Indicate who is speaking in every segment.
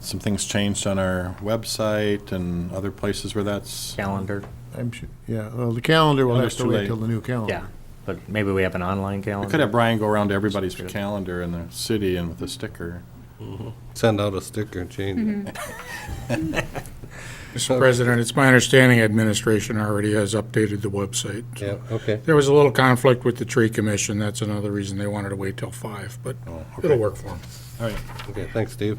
Speaker 1: some things changed on our website and other places where that's,
Speaker 2: calendar.
Speaker 3: I'm sure, yeah, well, the calendar will
Speaker 1: Calendar's
Speaker 3: have to
Speaker 1: too
Speaker 3: wait
Speaker 1: late.
Speaker 3: till the new calendar.
Speaker 2: Yeah, but maybe we have an online
Speaker 1: we
Speaker 2: calendar.
Speaker 1: could have Brian go around to everybody's calendar in the city and with a sticker.
Speaker 4: Send out a sticker and change it.
Speaker 5: Mr. President, it's my understanding administration already has updated the website.
Speaker 4: Yeah, okay.
Speaker 5: There was a little conflict with the tree commission, that's another reason they wanted to wait till five, but it'll work for them.
Speaker 1: All right,
Speaker 4: Okay, thanks, Steve.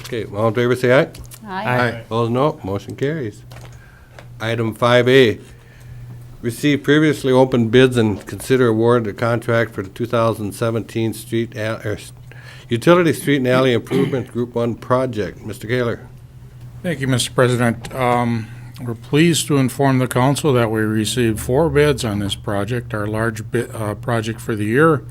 Speaker 4: Okay, all in favor, say aye.
Speaker 2: Aye.
Speaker 4: Opposed, no. Motion carries. Item 5A, receive previously open bids and consider award a contract for the 2017 street, al- er, s- utility street and alley improvement Group 1 project. Mr. Gaylor?
Speaker 5: Thank you, Mr. President. Um, We're pleased to inform the council that we received four bids on this project, our large bid, uh, project for the year.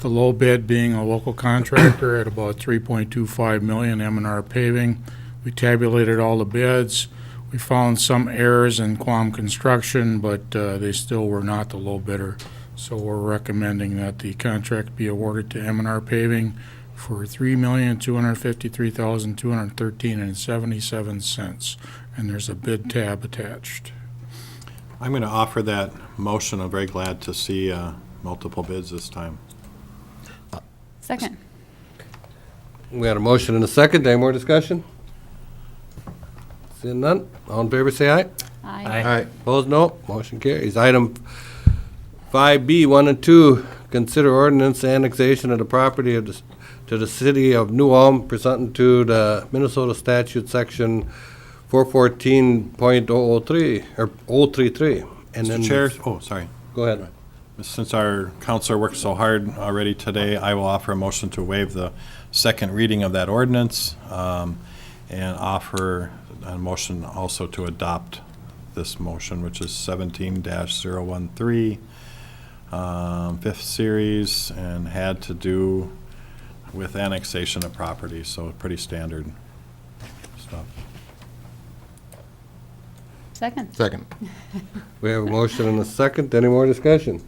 Speaker 5: The low bid being a local contractor at about 3.25 million, M and R paving. We tabulated all the bids. We found some errors in Quam Construction, but uh, they still were not the low bidder. So we're recommending that the contract be awarded to M and R paving for three million, two hundred fifty-three thousand, two hundred thirteen and seventy-seven cents. And there's a bid tab attached.
Speaker 1: I'm going to offer that motion. I'm very glad to see uh, multiple bids this time.
Speaker 6: Second.
Speaker 4: We got a motion and a second. Any more discussion? Seeing none. All in favor, say aye.
Speaker 6: Aye.
Speaker 4: Opposed, no. Motion carries. Item 5B, 1 and 2, consider ordinance annexation of the property of the- to the city of New Ulm pursuant to the Minnesota statute, section 414.003, or 033. And then-
Speaker 1: Mr. Chair, oh, sorry.
Speaker 4: Go ahead.
Speaker 1: Since our counselor worked so hard already today, I will offer a motion to waive the second reading of that ordinance um, and offer a motion also to adopt this motion, which is 17-013, um, fifth series, and had to do with annexation of property, so pretty standard stuff.
Speaker 6: Second.
Speaker 3: Second.
Speaker 4: We have a motion and a second. Any more discussion?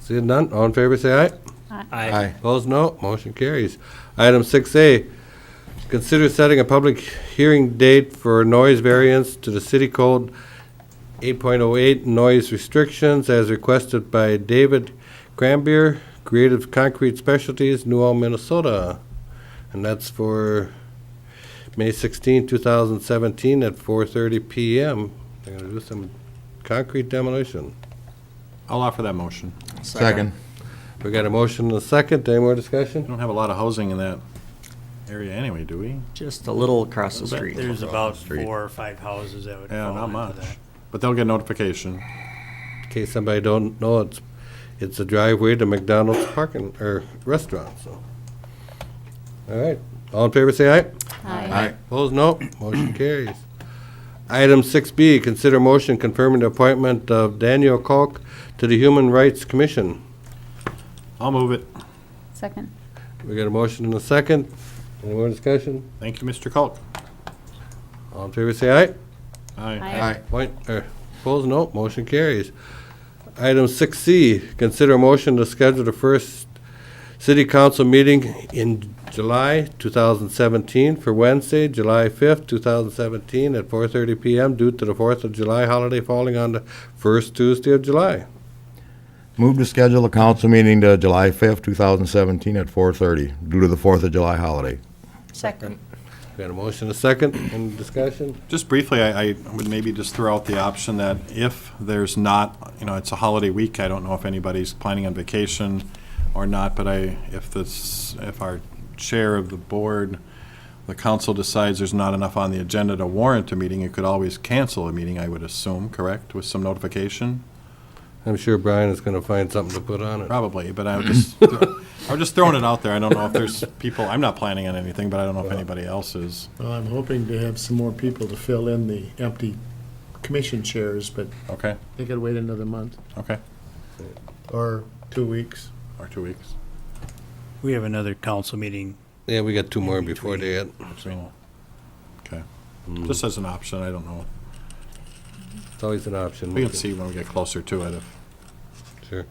Speaker 4: Seeing none. All in favor, say aye.
Speaker 2: Aye.
Speaker 4: Opposed, no. Motion carries. Item 6A, consider setting a public hearing date for noise variance to the City Code 8.08 noise restrictions as requested by David Grambier, Creative Concrete Specialties, New Ulm, Minnesota. And that's for May 16, 2017 at 4:30 PM. They're going to do some concrete demolition.
Speaker 1: I'll offer that motion.
Speaker 3: Second.
Speaker 4: We got a motion and a second. Any more discussion?
Speaker 1: We don't have a lot of housing in that area anyway, do we?
Speaker 2: Just a little across the
Speaker 7: But
Speaker 2: street.
Speaker 7: There's about four or five houses that would
Speaker 1: Yeah,
Speaker 7: fall
Speaker 1: not
Speaker 7: into
Speaker 1: much.
Speaker 7: that.
Speaker 1: But they'll get notification.
Speaker 4: In case somebody don't know, it's, it's a driveway to McDonald's parking, or restaurant, so. All right, all in favor, say aye.
Speaker 6: Aye.
Speaker 4: Opposed, no. Motion carries. Item six B, consider motion confirming the appointment of Daniel Kalk to the Human Rights Commission.
Speaker 1: I'll move it.
Speaker 6: Second.
Speaker 4: We got a motion and a second. Any more discussion?
Speaker 1: Thank you, Mr. Culp.
Speaker 4: All in favor, say aye.
Speaker 1: Aye.
Speaker 6: Aye.
Speaker 4: Point, er, opposed, no, motion carries. Item six C, consider motion to schedule the first city council meeting in July two thousand seventeen for Wednesday, July fifth, two thousand seventeen, at four thirty PM due to the Fourth of July holiday falling on the first Tuesday of July.
Speaker 8: Move to schedule a council meeting to July 5th, 2017 at 4:30 due to the 4th of July holiday.
Speaker 6: Second.
Speaker 4: Got a motion, a second, and discussion?
Speaker 1: Just briefly, I, I would maybe just throw out the option that if there's not, you know, it's a holiday week, I don't know if anybody's planning on vacation or not, but I, if this, if our chair of the board, the council decides there's not enough on the agenda to warrant a meeting, you could always cancel a meeting, I would assume, correct, with some notification?
Speaker 4: I'm sure Brian is gonna find something to put on it.
Speaker 1: Probably, but I would just, I was just throwing it out there. I don't know if there's people, I'm not planning on anything, but I don't know if anybody else is.
Speaker 3: Well, I'm hoping to have some more people to fill in the empty commission chairs, but
Speaker 1: Okay,
Speaker 3: they could wait another month
Speaker 1: okay,
Speaker 3: or two weeks.
Speaker 1: or two weeks.
Speaker 7: We have another council meeting.
Speaker 4: Yeah, we got two more before they had.
Speaker 1: So, Okay. Just as an option, I don't know.
Speaker 4: It's always an option.
Speaker 1: We can see when we get closer to it. if-
Speaker 4: Sure.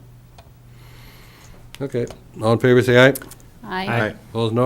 Speaker 4: Okay, all in favor, say aye.
Speaker 9: Aye.
Speaker 10: Aye.
Speaker 6: Opposed, no.